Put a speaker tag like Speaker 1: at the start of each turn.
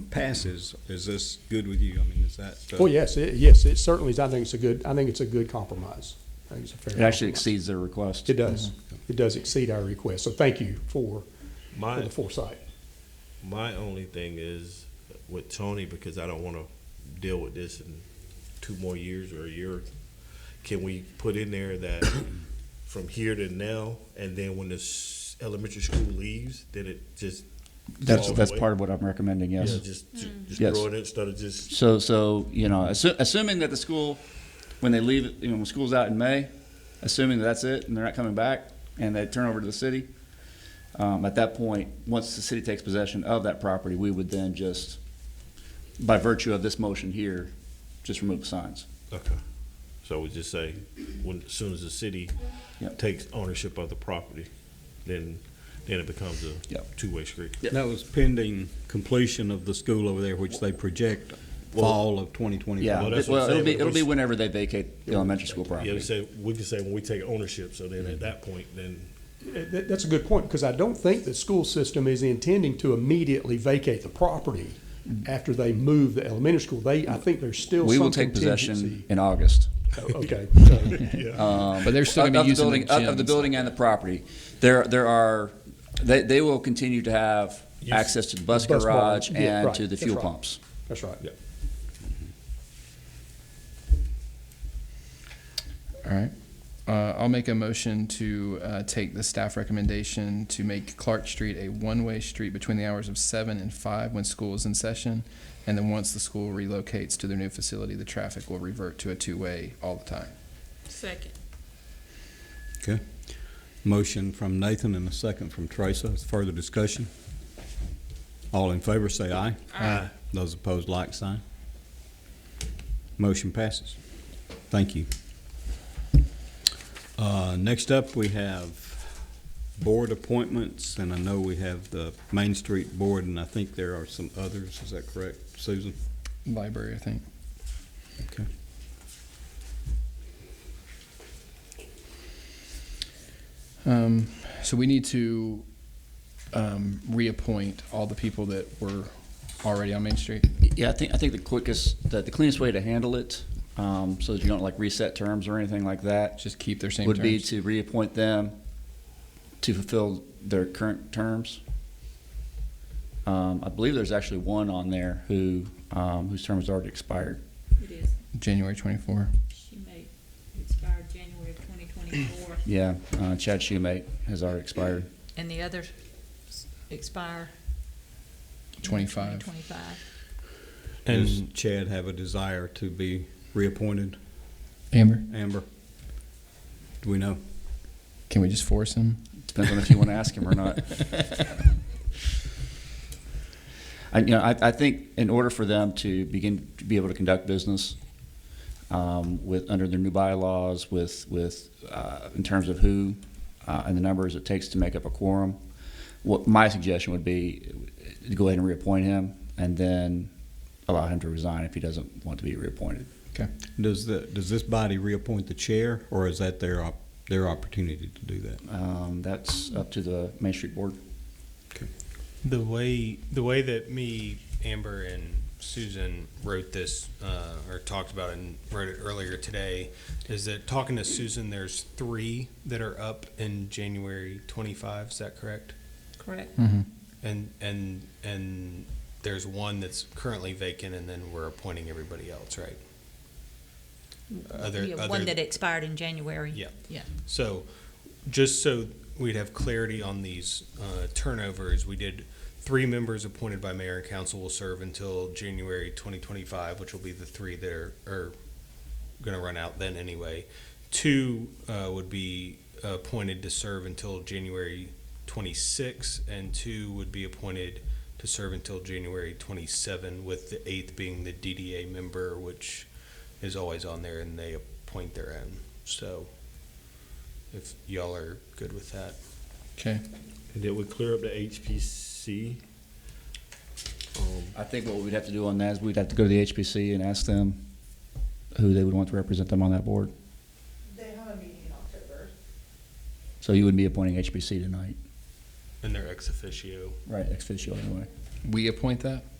Speaker 1: passes, is this good with you? I mean, is that? uh,
Speaker 2: Oh,
Speaker 3: Well, yes, it, yes, it certainly is. I think it's a good, I think it's a good compromise. I think it's a fair.
Speaker 2: It actually
Speaker 3: compromise.
Speaker 2: exceeds their request.
Speaker 3: It does.
Speaker 4: Mm-hmm.
Speaker 3: It does exceed our request. So thank you for, for
Speaker 4: My
Speaker 3: the foresight.
Speaker 4: my only thing is with Tony because I don't want to deal with this in two more years or a year. Can we put in there that from here to now, and then when this elementary school leaves, then it just
Speaker 2: That's,
Speaker 4: falls
Speaker 2: that's
Speaker 4: away?
Speaker 2: part of what I'm recommending,
Speaker 4: Yeah,
Speaker 2: yes.
Speaker 4: just ju- just
Speaker 2: Yes.
Speaker 4: throw it in instead of just
Speaker 2: So, so, you know, assu- assuming that the school, when they leave, you know, when school's out in May, assuming that that's it and they're not coming back and they turn over to the city, um, at that point, once the city takes possession of that property, we would then just, by virtue of this motion here, just remove the signs.
Speaker 4: okay. So we just say when as soon as the city
Speaker 2: Yep.
Speaker 4: takes ownership of the property, then then it becomes a
Speaker 2: Yep.
Speaker 4: two way street.
Speaker 2: Yeah.
Speaker 1: That was pending completion of the school over there, which they project fall of twenty
Speaker 2: Yeah,
Speaker 4: Well,
Speaker 1: twenty-five.
Speaker 4: that's
Speaker 2: it-
Speaker 4: what I'm
Speaker 2: well, it'll
Speaker 4: saying,
Speaker 2: be,
Speaker 4: but
Speaker 2: it'll
Speaker 4: we
Speaker 2: be
Speaker 4: s-
Speaker 2: whenever they vacate the elementary school
Speaker 4: Yeah, we
Speaker 2: property.
Speaker 4: say we can say when we take ownership. So then
Speaker 2: Mm-hmm.
Speaker 4: at that point, then
Speaker 3: That, that's a good point because I don't think the school system is intending to immediately vacate the property after they move the elementary school. They, I think there's still
Speaker 2: We will
Speaker 3: some
Speaker 2: take possession
Speaker 3: contingency.
Speaker 2: in August.
Speaker 3: Oh, Okay. So,
Speaker 5: But they're still
Speaker 2: of, Um, of
Speaker 5: going to be
Speaker 2: the
Speaker 5: using
Speaker 2: building,
Speaker 5: the
Speaker 2: of- of the
Speaker 5: gyms.
Speaker 2: building and the property. There, there are, they, they will continue to have
Speaker 4: Use-
Speaker 2: access to the bus
Speaker 3: Bus barn.
Speaker 2: garage
Speaker 3: Yeah,
Speaker 2: and
Speaker 3: right.
Speaker 2: to the
Speaker 3: That's
Speaker 2: fuel
Speaker 3: right.
Speaker 2: pumps.
Speaker 3: That's right.
Speaker 4: Yeah.
Speaker 5: All right. Uh, I'll make a motion to uh, take the staff recommendation to make Clark Street a one-way street between the hours of seven and five when school is in session, and then once the school relocates to their new facility, the traffic will revert to a two-way all the time.
Speaker 6: Second.
Speaker 1: Motion from Nathan and a second from Teresa. Further discussion? All in favor, say aye.
Speaker 6: Uh.
Speaker 4: Aye.
Speaker 1: Those opposed, like sign. Motion passes. Thank you. Uh, Next up, we have board appointments, and I know we have the Main Street Board, and I think there are some others. Is that correct, Susan?
Speaker 5: Library, I think.
Speaker 1: Okay.
Speaker 5: Um, so we need to um, reappoint all the people that were already on Main Street.
Speaker 2: Yeah, I think, I think the quickest, the, the cleanest way to handle it, um, so that you don't like reset terms or anything like that,
Speaker 5: Just keep their same
Speaker 2: would be
Speaker 5: terms.
Speaker 2: to reappoint them to fulfill their current terms. Um, I believe there's actually one on there who, um, whose term has already expired.
Speaker 6: It is.
Speaker 5: January 24.
Speaker 6: She may expire January of twenty twenty-four.
Speaker 2: Yeah, uh, Chad Schumate has already expired.
Speaker 6: And the others expire?
Speaker 5: 25.
Speaker 6: Twenty-five.
Speaker 1: Does Chad have a desire to be reappointed?
Speaker 5: Amber,
Speaker 1: Amber? Do we know?
Speaker 5: can we just force him?
Speaker 2: Depends on if you want to ask him or not. I, you know, I, I think in order for them to begin to be able to conduct business um, with under their new bylaws, with with uh, in terms of who uh, and the numbers it takes to make up a quorum, what my suggestion would be uh, to go ahead and reappoint him, and then allow him to resign if he doesn't want to be reappointed.
Speaker 5: Okay.
Speaker 1: Does the, does this body reappoint the chair, or is that their, op- their opportunity to do that?
Speaker 2: Um, that's up to the Main Street Board.
Speaker 7: The way the way that me, Amber, and Susan wrote this uh, or talked about it and wrote it earlier today is that talking to Susan, there's three that are up in January 25. Is that correct?
Speaker 6: Correct.
Speaker 5: Mm-hmm.
Speaker 7: And and and there's one that's currently vacant, and then we're appointing everybody else, right? Other,
Speaker 6: Mm, Yeah, one that expired in January.
Speaker 7: Yeah.
Speaker 6: Yeah.
Speaker 7: So, just so we'd have clarity on these uh, turnovers, we did three members appointed by mayor and council will serve until January 2025, which will be the three that are, are going to run out then anyway. Two uh, would be appointed to serve until January 26, and two would be appointed to serve until January 27, with the eighth being the DDA member, which is always on there, and they appoint their own. So, if y'all are good with that.
Speaker 5: Okay.
Speaker 4: And then we clear up the HPC. Um,
Speaker 2: I think what we'd have to do on that is we'd have to go to the HPC and ask them who they would want to represent them on that board.
Speaker 8: They have a meeting in October.
Speaker 2: So you would be appointing HPC tonight.
Speaker 7: And they're ex officio.
Speaker 2: Right. Ex officio anyway.
Speaker 5: We appoint that?